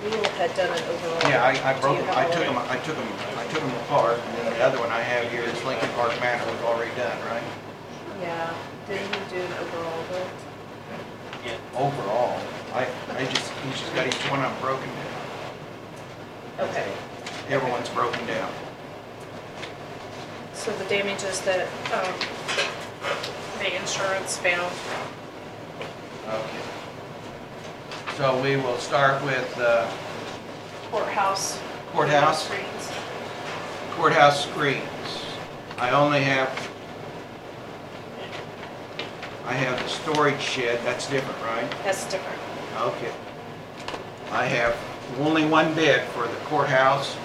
Newell had done an overall. Yeah, I, I broke Do you them, have I took all them, of I took them, I took them apart, and then the other one I have here is Lincoln Park Manor was already done, right? it? Yeah, didn't he do an overall vote? Overall, I, I just, he's just got each one of them broken down, Okay, everyone's broken down. so the damages that, um, the insurance found. Okay. So we will start with uh, Courthouse. courthouse, Screens. courthouse screens. I only have, I have the storage shed, that's different, right? That's different. Okay. I have only one bid for the courthouse.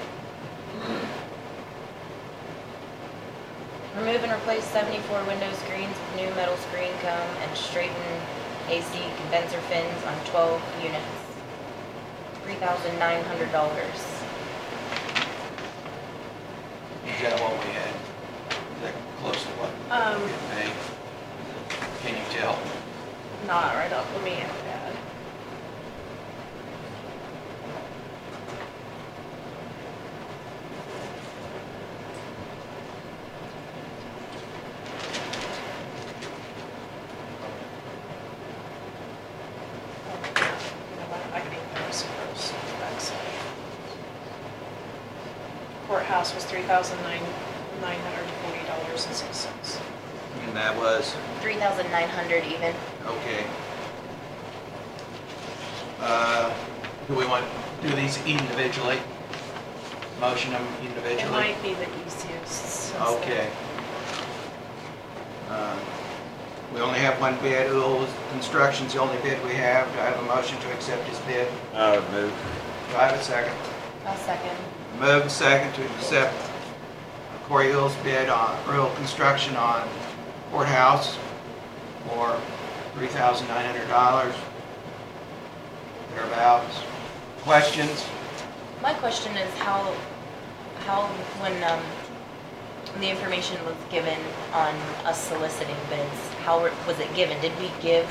Remove and replace 74 window screens with new metal screen cone and straighten AC condenser fins on 12 units. $3,900. Is that what we had? Is that close to what Um, we paid? Can you tell? not right off, let me add that. You know what, I can even those first, that's. Courthouse was three thousand nine, nine hundred and forty dollars and six cents. And that was, $3,900 even. okay. Uh, Do we want to do these individually? Motion them It individually? might be the easiest. since the- Okay. Uh, We only have one bid, Old Construction's the only bid we have. Do I have a motion to accept his bid? I would move. Do I have a second? I'll second. Move and second to accept Corey Hill's bid on rural construction on courthouse for $3,900 thereabouts. Questions? My question is how, how, when um, the information was given on us soliciting bids, how were- was it given? Did we give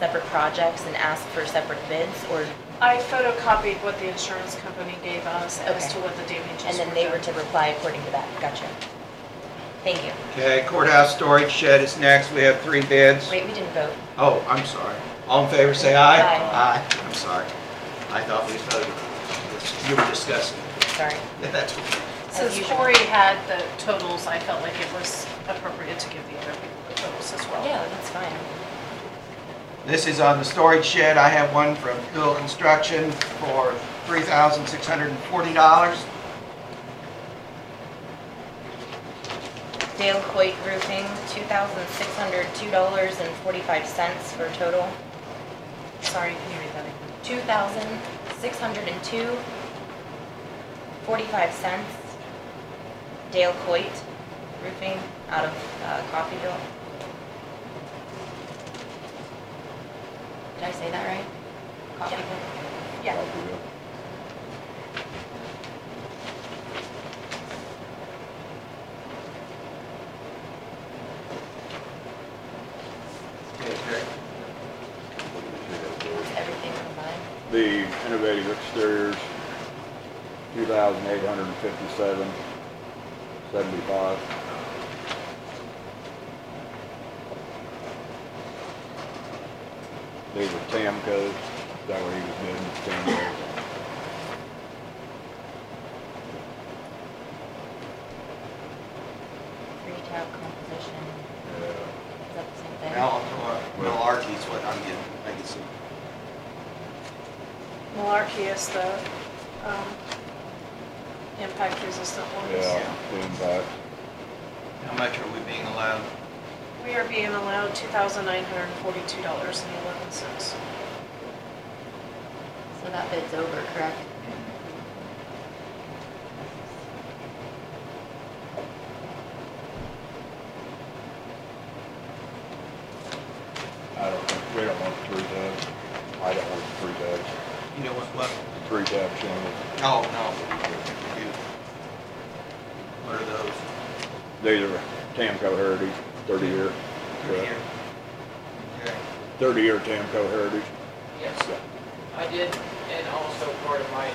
separate projects and ask for separate bids or, I photocopied what the insurance company gave us as Okay. to what the damages were. and then they were done. to reply according to that? Gotcha. Thank you. Okay, courthouse storage shed is next. We have three bids. Wait, we didn't vote. Oh, I'm sorry. All in favor, say aye. Aye. Aye. I'm sorry. I thought we voted. You were discussing. Sorry. Yeah, That's okay. Since usual. Corey had the totals, I felt like it was appropriate to give the other people the totals as well. Yeah, that's fine. This is on the storage shed. I have one from Hill Construction for $3,640. Dale Coit Roofing, two thousand six hundred two dollars and forty-five cents for a total, Sorry, can you read that again? two thousand six hundred and two forty-five cents. Dale Coit Roofing out of uh, Coffeyville. Did I say that right? Coffeyville? Yeah. Okay, Terry. Is everything combined? The innovative exteriors, two thousand eight hundred and fifty-seven, seventy-five. These are Tamco, is that what he was bidding, Tamco? Retail composition, Yeah. is that the same thing? Mal- Malarkey's what I'm getting, I can see. Malarkey is the um, impact resistant ones. Yeah, the impact. How much are we being allowed? We are being allowed $2,942.11. So that bid's over, correct? I don't think, we don't want three tubs. I don't want three tubs, You know what, what? three tub shingles. No, no. You- What are those? These are Tamco Heritage, thirty-year. They're here. Okay. Thirty-year Tamco Heritage. Yes, I did and also part of my